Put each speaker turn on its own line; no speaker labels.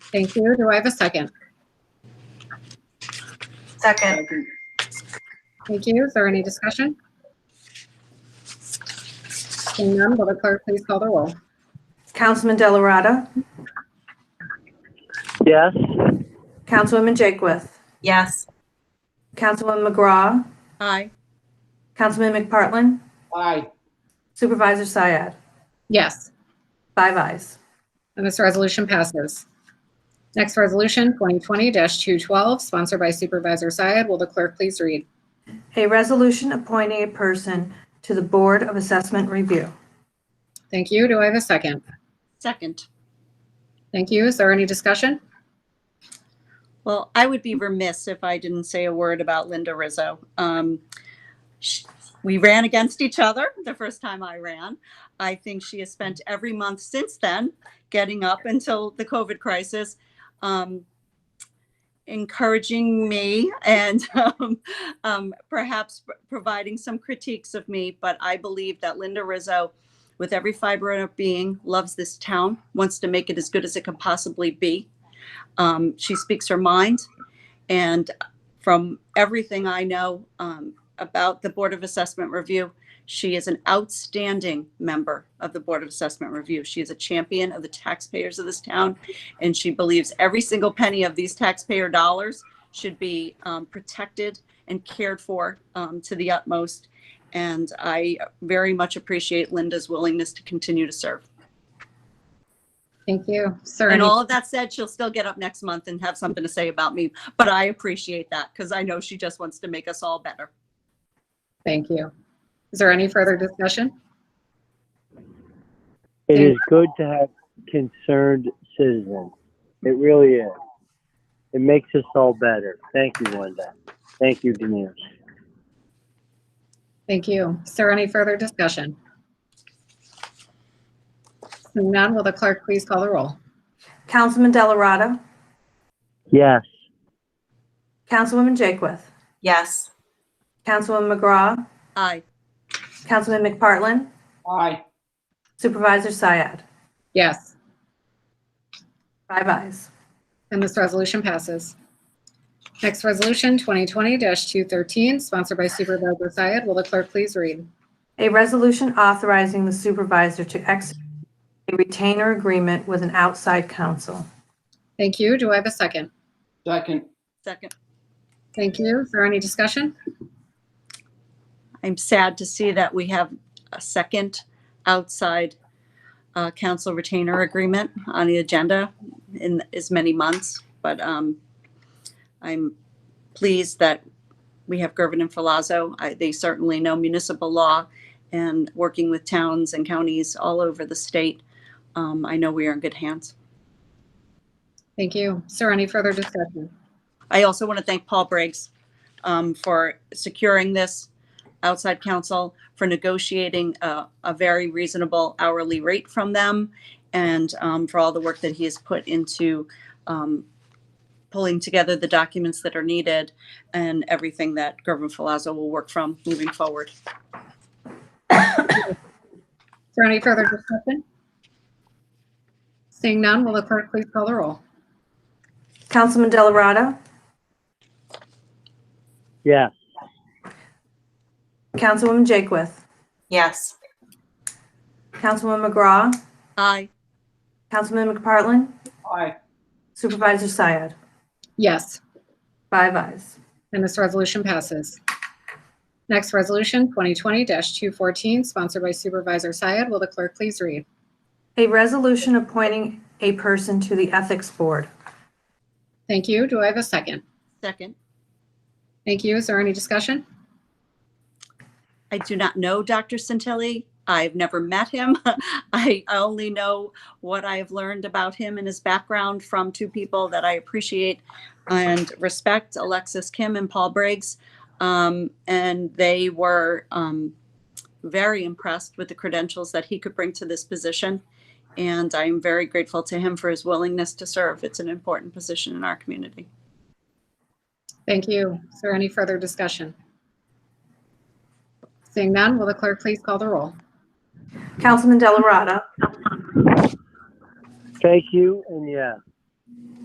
Thank you. Do I have a second?
Second.
Thank you. Is there any discussion? Seeing none, will the clerk please call the roll?
Councilman Delarada.
Yes.
Councilwoman Jakewith.
Yes.
Councilwoman McGraw.
Aye.
Councilman McPartlin.
Aye.
Supervisor Syed.
Yes,
Five ayes.
and this resolution passes. Next resolution, 2020-212, sponsored by Supervisor Syed. Will the clerk please read?
A resolution appointing a person to the Board of Assessment Review.
Thank you. Do I have a second?
Second.
Thank you. Is there any discussion?
Well, I would be remiss if I didn't say a word about Linda Rizzo. Um, sh we ran against each other the first time I ran. I think she has spent every month since then, getting up until the COVID crisis, um, encouraging me and um, um, perhaps p- providing some critiques of me. But I believe that Linda Rizzo, with every fiber of her being, loves this town, wants to make it as good as it can possibly be. Um, she speaks her mind. And from everything I know um, about the Board of Assessment Review, she is an outstanding member of the Board of Assessment Review. She is a champion of the taxpayers of this town, and she believes every single penny of these taxpayer dollars should be um, protected and cared for um, to the utmost. And I very much appreciate Linda's willingness to continue to serve.
Thank you. Is there
And
any-
all of that said, she'll still get up next month and have something to say about me. But I appreciate that because I know she just wants to make us all better.
Thank you. Is there any further discussion?
It is good to have concerned citizens. It really is. It makes us all better. Thank you, Linda. Thank you, Denise.
Thank you. Is there any further discussion? Seeing none, will the clerk please call the roll?
Councilman Delarada.
Yes.
Councilwoman Jakewith.
Yes.
Councilwoman McGraw.
Aye.
Councilman McPartlin.
Aye.
Supervisor Syed.
Yes,
Five ayes.
and this resolution passes. Next resolution, 2020-213, sponsored by Supervisor Syed. Will the clerk please read?
A resolution authorizing the supervisor to execute a retainer agreement with an outside counsel.
Thank you. Do I have a second?
Second.
Second.
Thank you. Is there any discussion?
I'm sad to see that we have a second outside uh, council retainer agreement on the agenda in as many months. But um, I'm pleased that we have Gervin and Filazzo. I, they certainly know municipal law and working with towns and counties all over the state. Um, I know we are in good hands.
Thank you. Is there any further discussion?
I also want to thank Paul Briggs um, for securing this outside counsel, for negotiating a, a very reasonable hourly rate from them, and um, for all the work that he has put into um, pulling together the documents that are needed and everything that Gervin Filazzo will work from moving forward.
Is there any further discussion? Seeing none, will the clerk please call the roll?
Councilman Delarada.
Yes.
Councilwoman Jakewith.
Yes.
Councilwoman McGraw.
Aye.
Councilman McPartlin.
Aye.
Supervisor Syed.
Yes.
Five ayes.
And this resolution passes. Next resolution, 2020-214, sponsored by Supervisor Syed. Will the clerk please read?
A resolution appointing a person to the Ethics Board.
Thank you. Do I have a second?
Second.
Thank you. Is there any discussion?
I do not know Dr. Santilli. I've never met him. I only know what I have learned about him and his background from two people that I appreciate and respect Alexis Kim and Paul Briggs. Um, and they were um, very impressed with the credentials that he could bring to this position. And I am very grateful to him for his willingness to serve. It's an important position in our community.
Thank you. Is there any further discussion? Seeing none, will the clerk please call the roll?
Councilman Delarada.
Thank you and yes.